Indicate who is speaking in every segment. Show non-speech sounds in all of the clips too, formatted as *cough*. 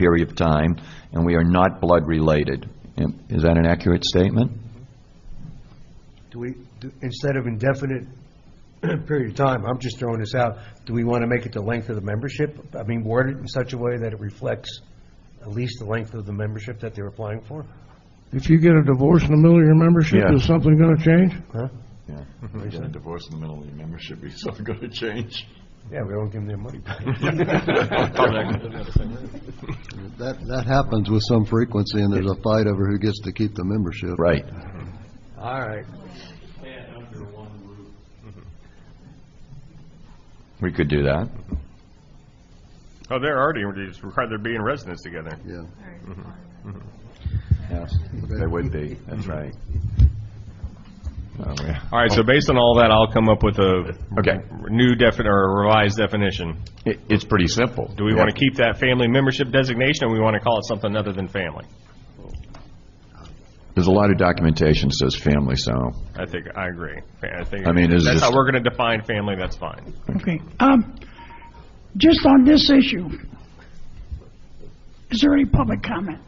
Speaker 1: period of time, and we are not blood-related. Am- Is that an accurate statement?
Speaker 2: Do we, do- instead of indefinite *clears throat* period of time, I'm just throwing this out, do we want to make it the length of the membership? I mean, word it in such a way that it reflects at least the length of the membership that they're applying for?
Speaker 3: If you get a divorce in the middle of your membership,
Speaker 1: Yeah.
Speaker 3: is something going to change?
Speaker 2: Huh?
Speaker 4: Yeah, you get a divorce in the middle of your membership, it's not going to change.
Speaker 2: Yeah, we don't give them their money
Speaker 5: *laughs*
Speaker 2: back.
Speaker 6: That, that happens with some frequency, and there's a fight over who gets to keep the membership.
Speaker 1: Right.
Speaker 2: All right.
Speaker 1: We could do that.
Speaker 7: Oh, they're already, it's required they're being residents together.
Speaker 6: Yeah.
Speaker 1: Yes, they would be, that's right. Oh, yeah.
Speaker 7: All right, so based on all that, I'll come up with a
Speaker 1: Okay.
Speaker 7: new defin, or a revised definition.
Speaker 1: It- It's pretty simple.
Speaker 7: Do we want to keep that family membership designation, or we want to call it something other than family?
Speaker 1: There's a lot of documentation that says family, so,
Speaker 7: I think, I agree. I think,
Speaker 1: I mean, is
Speaker 7: that's how
Speaker 1: this-
Speaker 7: we're going to define family, that's fine.
Speaker 8: Okay, um, just on this issue, is there any public comment?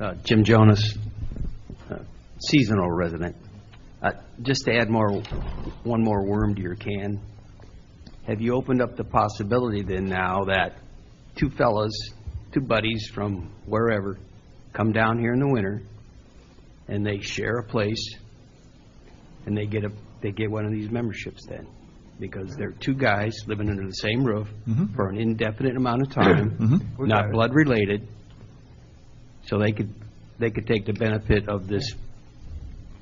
Speaker 5: Uh, Jim Jonas, uh, seasonal resident. Uh, Just to add more, one more worm to your can, have you opened up the possibility then now that two fellas, two buddies from wherever, come down here in the winter, and they share a place, and they get a, they get one of these memberships then? Because they're two guys living under the same roof for an indefinite amount of time, not blood-related, so they could, they could take the benefit of this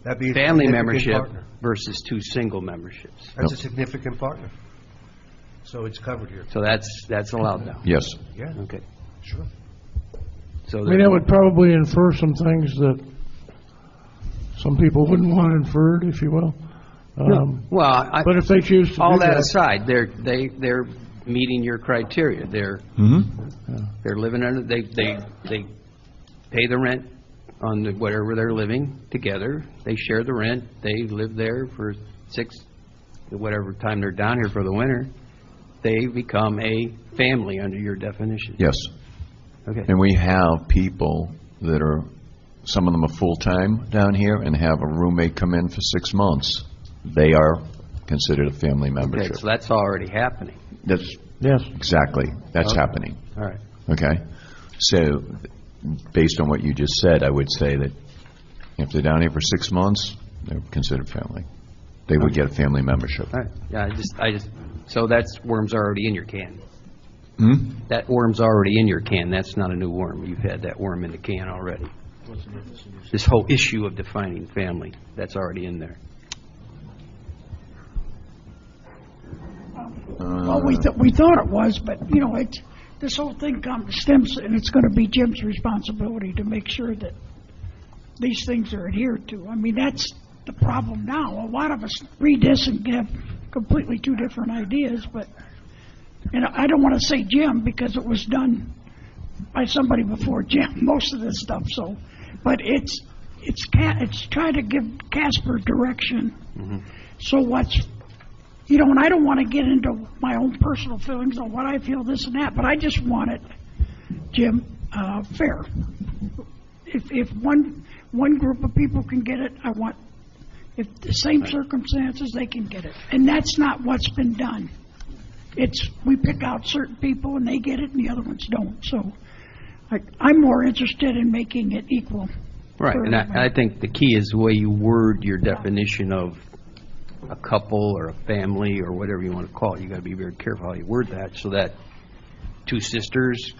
Speaker 2: That'd be a
Speaker 5: family
Speaker 2: significant
Speaker 5: membership
Speaker 2: partner.
Speaker 5: versus two single memberships.
Speaker 2: That's a significant partner. So it's covered here.
Speaker 5: So that's, that's allowed now.
Speaker 1: yes.
Speaker 2: Yeah,
Speaker 5: Okay.
Speaker 2: sure.
Speaker 5: So
Speaker 3: I mean, that
Speaker 5: there-
Speaker 3: would probably infer some things that some people wouldn't want inferred, if you will. Um,
Speaker 5: well, I,
Speaker 3: But if they choose to do
Speaker 5: all that
Speaker 3: that,
Speaker 5: aside, they're, they, they're meeting your criteria. They're,
Speaker 2: Mm-hmm.
Speaker 5: they're living under, they, they, they pay the rent on the- whatever they're living together. They share the rent. They live there for six, whatever time they're down here for the winter. They become a family under your definition.
Speaker 1: Yes.
Speaker 5: Okay.
Speaker 1: And we have people that are, some of them are full-time down here and have a roommate come in for six months. They are considered a family
Speaker 5: Okay,
Speaker 1: membership.
Speaker 5: so that's already happening.
Speaker 1: That's,
Speaker 3: yes.
Speaker 1: exactly, that's happening,
Speaker 5: All right.
Speaker 1: okay? So, based on what you just said, I would say that if they're down here for six months, they're considered family. They would get a family membership.
Speaker 5: All right, yeah, I just, I just, so that's, worm's already in your can? That worm's already in your can, that's not a new worm, you've had that worm in the can already. This whole issue of defining family, that's already in there.
Speaker 8: Well, we, th- we thought it was, but, you know, it's, this whole thing comes, stems, and it's gonna be Jim's responsibility to make sure that these things are adhered to. I mean, that's the problem now. A lot of us read this and have completely two different ideas, but, and I don't wanna say Jim, because it was done by somebody before Jim, *laughs* most of this stuff, so, but it's, it's ca, it's trying to give Casper direction. So what's you know, and I don't want to get into my own personal feelings on what I feel, this and that, but I just want it, Jim, uh, fair. If, if one, one group of people can get it, I want, if the same circumstances, they can get it. And that's not what's been done. It's, we pick out certain people and they get it and the other ones don't, so I, I'm more interested in making it equal.
Speaker 5: Right, and I, I think the key is the way you word your definition of a couple or a family or whatever you want to call it. You gotta be very careful how you word that, so that two sisters,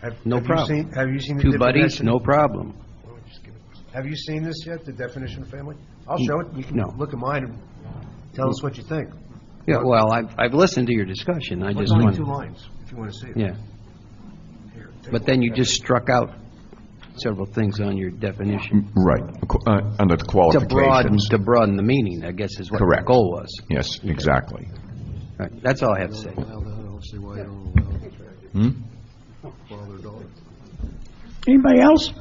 Speaker 2: Have-
Speaker 5: no
Speaker 2: have you
Speaker 5: problem.
Speaker 2: seen- Have you seen the
Speaker 5: Two buddies,
Speaker 2: definition?
Speaker 5: no problem.
Speaker 2: Why don't we just give it- Have you seen this yet, the definition of family? I'll show it, you can
Speaker 5: No.
Speaker 2: look at mine and tell us what you think.
Speaker 5: Yeah, well, I've, I've listened to your discussion, I
Speaker 2: It's
Speaker 5: just
Speaker 2: only two
Speaker 5: wanted,
Speaker 2: lines, if you want to see it.
Speaker 5: yeah.
Speaker 2: Here, take
Speaker 5: But
Speaker 2: a
Speaker 5: then
Speaker 2: look
Speaker 5: you
Speaker 2: at
Speaker 5: just struck out several things on your definition.
Speaker 1: Right, Qu- uh, under the
Speaker 5: To broaden,
Speaker 1: qualifications.
Speaker 5: to broaden the meaning, I guess is what the
Speaker 1: Correct.
Speaker 5: goal was.
Speaker 1: Yes, exactly.
Speaker 5: Right, That's all I have to say.
Speaker 6: Allow that, I don't see why you don't allow it. Father, daughter.
Speaker 8: Anybody else?